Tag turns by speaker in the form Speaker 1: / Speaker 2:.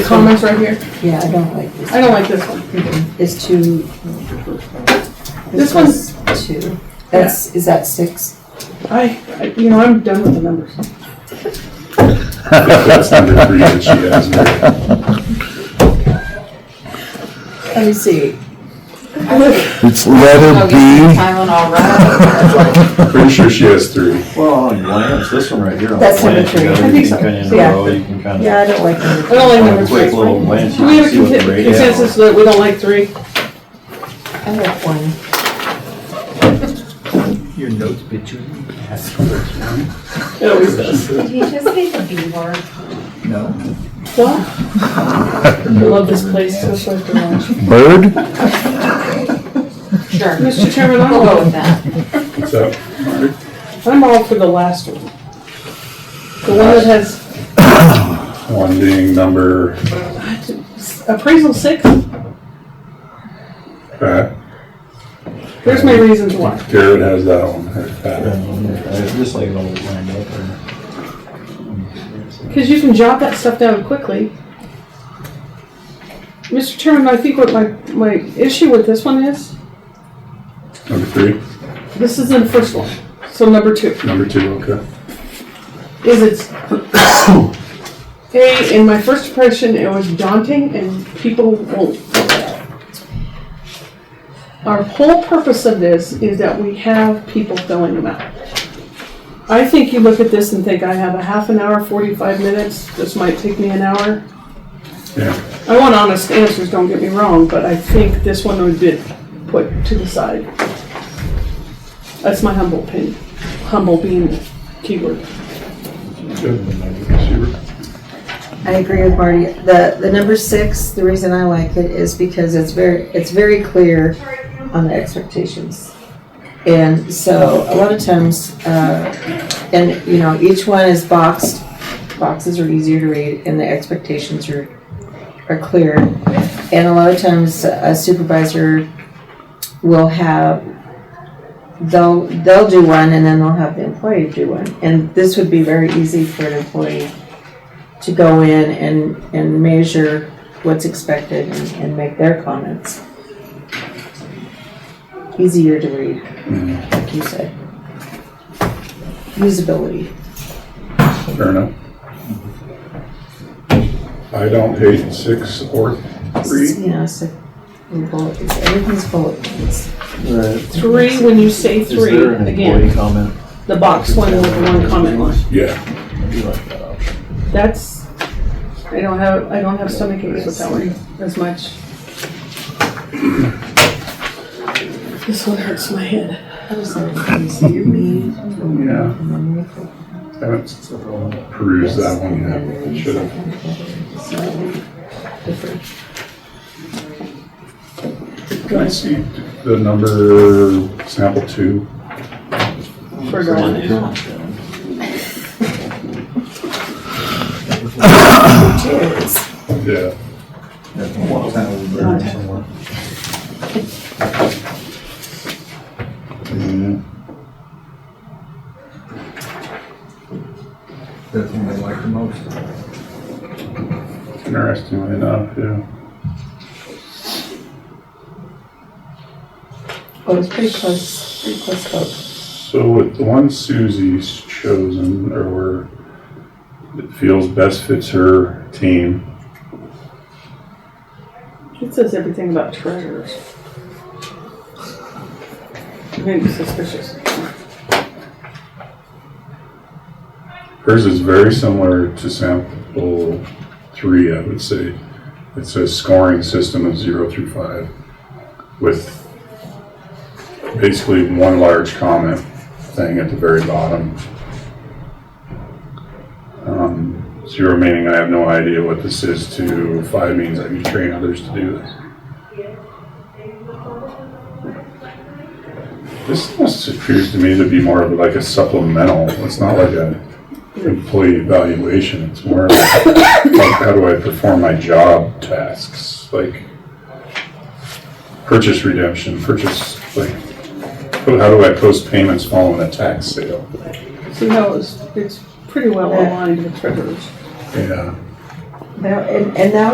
Speaker 1: Comments right here.
Speaker 2: Yeah, I don't like this.
Speaker 1: I don't like this one.
Speaker 2: It's too.
Speaker 1: This one's-
Speaker 2: one's Two. That's, is that six?
Speaker 1: I, I- you know, I'm done with the numbers.
Speaker 3: That's under three that she has there.
Speaker 2: Let me see.
Speaker 4: It's
Speaker 5: Oh,
Speaker 4: letter B.
Speaker 2: Tylenol, right?
Speaker 3: Pretty sure she has three.
Speaker 6: Well, on a glance, this one right here. on a
Speaker 2: That's number
Speaker 6: glance, you know,
Speaker 2: three. I
Speaker 6: you
Speaker 1: think
Speaker 6: can
Speaker 1: so.
Speaker 6: kinda know,
Speaker 2: Yeah.
Speaker 6: You can kind
Speaker 2: Yeah,
Speaker 6: of,
Speaker 2: I don't like
Speaker 1: I
Speaker 2: number.
Speaker 1: don't like
Speaker 6: on
Speaker 1: number
Speaker 6: a
Speaker 1: three.
Speaker 6: quick little glance,
Speaker 1: Do
Speaker 6: you
Speaker 1: we
Speaker 6: can
Speaker 1: have a
Speaker 6: see what the
Speaker 1: consen-
Speaker 6: rate is.
Speaker 1: consensus that we don't like three?
Speaker 2: I have one.
Speaker 7: Your notes, bitch.
Speaker 1: It always does.
Speaker 5: Did you just say the B word?
Speaker 7: No.
Speaker 1: What? I love this place, so it's like the lunch.
Speaker 4: Bird?
Speaker 5: Sure.
Speaker 1: Mr. Chairman, I'm
Speaker 5: We'll go
Speaker 1: all,
Speaker 5: with that.
Speaker 3: What's up?
Speaker 1: I'm all for the last one. The one that has
Speaker 3: One being number,
Speaker 1: appraisal six,
Speaker 3: uh,
Speaker 1: there's my reasons why.
Speaker 3: Garrett has that one. Uh,
Speaker 6: Uh, Just like it all lined up there.
Speaker 1: Because you can jot that stuff down quickly. Mr. Chairman, I think what my, my issue with this one is,
Speaker 3: Number three,
Speaker 1: this is in the first one, so number two.
Speaker 3: number two, okay.
Speaker 1: is it's a in my first impression it was daunting and people won't our whole purpose of this is that we have people filling them out i think you look at this and think i have a half an hour 45 minutes this might take me an hour
Speaker 3: Yeah,
Speaker 1: i want honest answers don't get me wrong but i think this one would be put to the side that's my humble opinion humble being the keyword
Speaker 3: good.
Speaker 2: I agree with Marty. The, the number six, the reason I like it is because it's very, it's very clear on the expectations. And so a lot of times, uh, and, you know, each one is boxed. Boxes are easier to read and the expectations are, are clear. And a lot of times a supervisor will have, they'll, they'll do one and then they'll have the employee do one. And this would be very easy for an employee to go in and, and measure what's expected and, and make their comments. Easier to read, like you said. Usability.
Speaker 3: Fair enough. I don't hate six or three.
Speaker 2: You know, so, and bullet, it's- everything's bullet points.
Speaker 6: Right.
Speaker 1: Three, when you say
Speaker 6: Is
Speaker 1: three,
Speaker 6: there an employee
Speaker 1: again,
Speaker 6: comment?
Speaker 1: the box one with the one comment line.
Speaker 3: Yeah,
Speaker 6: I do like that option.
Speaker 1: That's, I don't have, I don't have stomach aches with that one as much. This one hurts my head.
Speaker 2: How does that, you see your mean,
Speaker 3: yeah.
Speaker 2: and then you put-
Speaker 3: Haven't perused that one yet. I Should have. Can I see the number sample two?
Speaker 1: For girl.
Speaker 3: Yeah.
Speaker 6: That's one of them.
Speaker 3: Mm-hmm.
Speaker 7: That's the one I like the most.
Speaker 3: Interestingly enough, yeah.
Speaker 2: Oh, it's pretty close, pretty close vote.
Speaker 3: So with the one Susie's chosen or where it feels best fits her team,
Speaker 1: It says everything about treasures. Maybe suspicious.
Speaker 3: hers is very similar to sample three, I would say. It says scoring system of zero through five with basically one large comment thing at the very bottom. Um, zero meaning I have no idea what this is to five means I can train others to do this. This almost appears to me to be more of like a supplemental. It's not like a employee evaluation. It's more like, like how do I perform my job tasks? Like purchase redemption, purchase like but how do I post payments following a tax sale?
Speaker 1: See how it's, it's pretty well aligned with treasures.
Speaker 3: Yeah.
Speaker 2: Now, and, and now